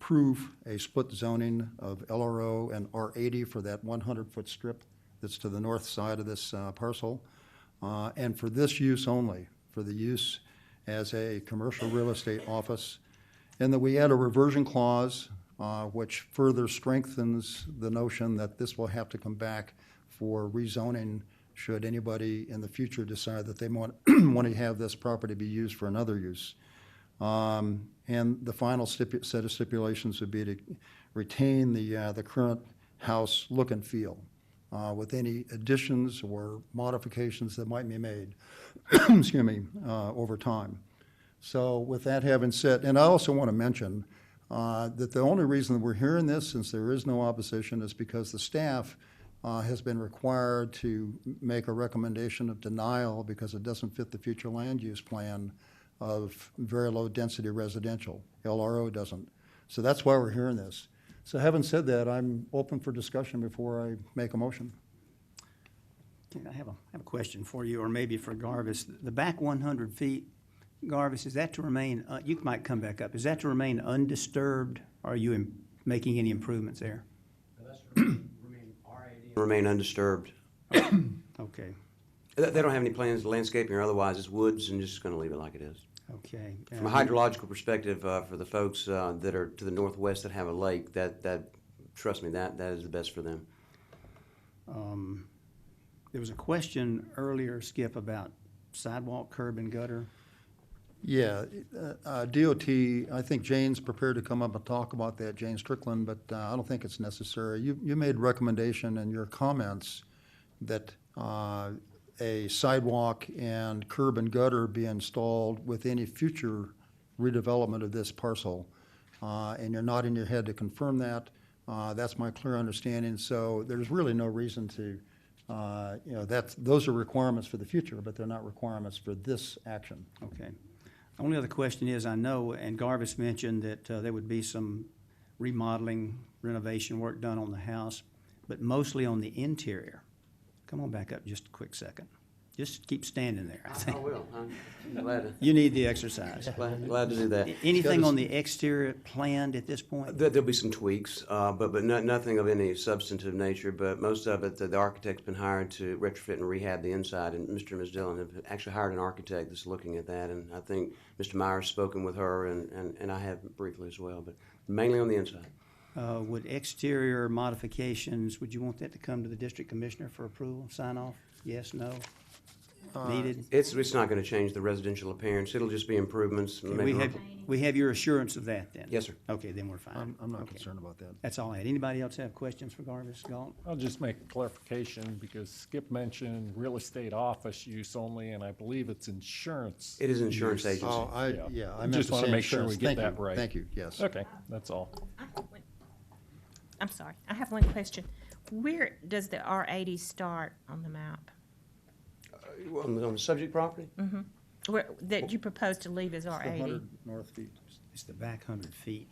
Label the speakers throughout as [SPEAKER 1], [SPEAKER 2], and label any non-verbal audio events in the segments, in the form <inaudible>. [SPEAKER 1] approve a split zoning of LRO and R80 for that 100-foot strip that's to the north side of this uh, parcel, uh, and for this use only, for the use as a commercial real estate office. And that we add a reversion clause, uh, which further strengthens the notion that this will have to come back for rezoning should anybody in the future decide that they want, <clears throat> want to have this property be used for another use. Um, And the final stipu- set of stipulations would be to retain the, uh, the current house look and feel uh, with any additions or modifications that might be made, <coughs> excuse me, uh, over time. So with that having said, and I also want to mention uh, that the only reason that we're hearing this, since there is no opposition, is because the staff uh, has been required to make a recommendation of denial because it doesn't fit the future land use plan of very low-density residential. LRO doesn't. So that's why we're hearing this. So having said that, I'm open for discussion before I make a motion.
[SPEAKER 2] Okay, I have a, I have a question for you, or maybe for Garvis. The back one hundred feet, Garvis, is that to remain, uh, you might come back up, is that to remain undisturbed? Are you im- making any improvements there?
[SPEAKER 3] Remain undisturbed.
[SPEAKER 2] Okay,
[SPEAKER 3] They they don't have any plans, landscaping or otherwise, it's woods and just gonna leave it like it is.
[SPEAKER 2] okay.
[SPEAKER 3] From a
[SPEAKER 2] Uh,
[SPEAKER 3] hydrological perspective, uh, for the folks, uh, that are to the northwest that have a lake, that, that, trust me, that, that is the best for them.
[SPEAKER 2] There was a question earlier, Skip, about sidewalk, curb, and gutter.
[SPEAKER 1] Yeah, uh, uh, DOT, I think Jane's prepared to come up and talk about that, Jane Strickland, but uh, I don't think it's necessary. You, you made recommendation in your comments that uh, a sidewalk and curb and gutter be installed with any future redevelopment of this parcel. Uh, And you're nodding your head to confirm that. Uh, That's my clear understanding, so there's really no reason to, uh, you know, that's, those are requirements for the future, but they're not requirements for this action.
[SPEAKER 2] Okay. Only other question is, I know, and Garvis mentioned that uh, there would be some remodeling, renovation work done on the house, but mostly on the interior. Come on back up just a quick second. Just keep standing there, I think.
[SPEAKER 3] will, I'm glad,
[SPEAKER 2] You need the exercise.
[SPEAKER 3] glad, glad to do that.
[SPEAKER 2] A- Anything on the exterior planned at this point?
[SPEAKER 3] There, there'll be some tweaks, uh, but, but no, nothing of any substantive nature, but most of it, the, the architect's been hired to retrofit and rehab the inside, and Mr. and Ms. Dillon have actually hired an architect that's looking at that, and I think Mr. Meyer's spoken with her, and, and, and I have briefly as well, but mainly on the inside.
[SPEAKER 2] Uh, Would exterior modifications, would you want that to come to the district commissioner for approval, sign off? Yes, no? Needed?
[SPEAKER 3] It's, it's not gonna change the residential appearance, it'll just be improvements.
[SPEAKER 2] Okay,
[SPEAKER 3] maybe-
[SPEAKER 2] We have, we have your assurance of that then?
[SPEAKER 3] Yes, sir.
[SPEAKER 2] Okay, then we're fine.
[SPEAKER 1] I'm, I'm not
[SPEAKER 2] Okay.
[SPEAKER 1] concerned about that.
[SPEAKER 2] That's all I had. Anybody else have questions for Garvis Galt?
[SPEAKER 4] I'll just make a clarification because Skip mentioned real estate office use only, and I believe it's insurance.
[SPEAKER 3] It is insurance
[SPEAKER 4] use.
[SPEAKER 3] agency.
[SPEAKER 1] Oh, I,
[SPEAKER 4] Yeah.
[SPEAKER 1] yeah, I
[SPEAKER 4] I
[SPEAKER 1] meant to
[SPEAKER 4] just wanna
[SPEAKER 1] say
[SPEAKER 4] make sure we
[SPEAKER 1] insurance. Thank
[SPEAKER 4] get that
[SPEAKER 1] you.
[SPEAKER 4] right.
[SPEAKER 1] Thank you, yes.
[SPEAKER 4] Okay, that's all.
[SPEAKER 5] I have one- I'm sorry, I have one question. Where does the R eighty start on the map?
[SPEAKER 3] On the, on the subject property?
[SPEAKER 5] Where, that you propose to leave as R eighty?
[SPEAKER 1] 100 north feet.
[SPEAKER 2] It's the back hundred feet.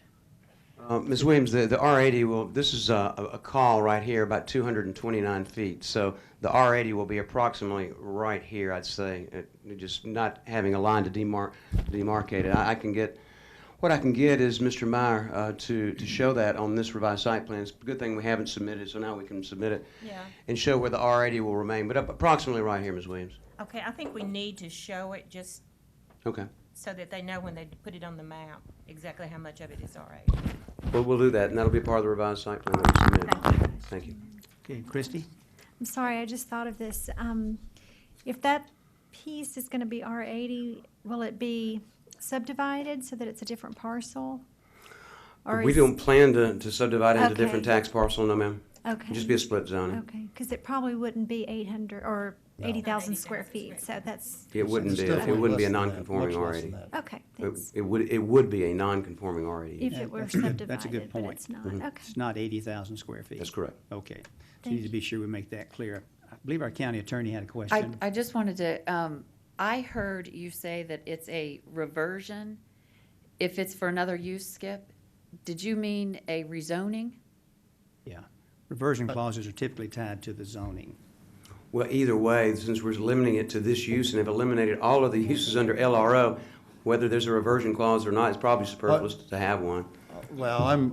[SPEAKER 3] Uh, Ms. Williams, the, the R80 will, this is a, a- a call right here, about 229 feet. So the R80 will be approximately right here, I'd say, It- it just not having a line to demarc, demarcate it. I I can get, what I can get is Mr. Meyer uh, to, to show that on this revised site plan. It's a good thing we haven't submitted, so now we can submit it.
[SPEAKER 5] Yeah.
[SPEAKER 3] And show where the R80 will remain, but up- approximately right here, Ms. Williams.
[SPEAKER 5] Okay, I think we need to show it just
[SPEAKER 3] Okay.
[SPEAKER 5] so that they know when they put it on the map, exactly how much of it is R eighty.
[SPEAKER 3] Well, we'll do that, and that'll be part of the revised site plan that we submit. Thank you.
[SPEAKER 2] Okay, Christie?
[SPEAKER 6] I'm sorry, I just thought of this. Um, If that piece is going to be R80, will it be subdivided so that it's a different parcel? Or
[SPEAKER 3] We
[SPEAKER 6] is-
[SPEAKER 3] don't plan to, to subdivide into
[SPEAKER 6] Okay.
[SPEAKER 3] different tax parcel, no ma'am.
[SPEAKER 6] Okay.
[SPEAKER 3] Just be a split zoning.
[SPEAKER 6] Okay, because it probably wouldn't be 800 or 80,000 square
[SPEAKER 5] 80,000
[SPEAKER 6] feet, so that's,
[SPEAKER 3] It wouldn't
[SPEAKER 1] It's
[SPEAKER 3] be, it
[SPEAKER 1] definitely
[SPEAKER 3] wouldn't be a
[SPEAKER 1] less than that,
[SPEAKER 3] non-conforming
[SPEAKER 1] much less than
[SPEAKER 3] R80.
[SPEAKER 1] that.
[SPEAKER 6] okay,
[SPEAKER 3] It
[SPEAKER 6] thanks.
[SPEAKER 3] it would, it would be a non-conforming R80.
[SPEAKER 6] If
[SPEAKER 2] Yeah,
[SPEAKER 6] it were
[SPEAKER 2] that's a good-
[SPEAKER 6] subdivided,
[SPEAKER 2] that's a good
[SPEAKER 6] but
[SPEAKER 2] point.
[SPEAKER 6] it's not,
[SPEAKER 2] It's
[SPEAKER 6] okay.
[SPEAKER 2] not eighty thousand square feet.
[SPEAKER 3] Mm-hmm. That's correct.
[SPEAKER 2] Okay. So
[SPEAKER 6] Thank
[SPEAKER 2] you need to
[SPEAKER 6] you.
[SPEAKER 2] be sure we make that clear. I believe our county attorney had a
[SPEAKER 7] I,
[SPEAKER 2] question.
[SPEAKER 7] I just wanted to, um, I heard you say that it's a reversion if it's for another use, Skip. Did you mean a rezoning?
[SPEAKER 2] Yeah. Reversion
[SPEAKER 7] Uh,
[SPEAKER 2] clauses are typically tied to the zoning.
[SPEAKER 3] Well, either way, since we're limiting it to this use and have eliminated all of the uses under LRO, whether there's a reversion clause or not, it's probably superfluous to have one.
[SPEAKER 1] Well, I'm,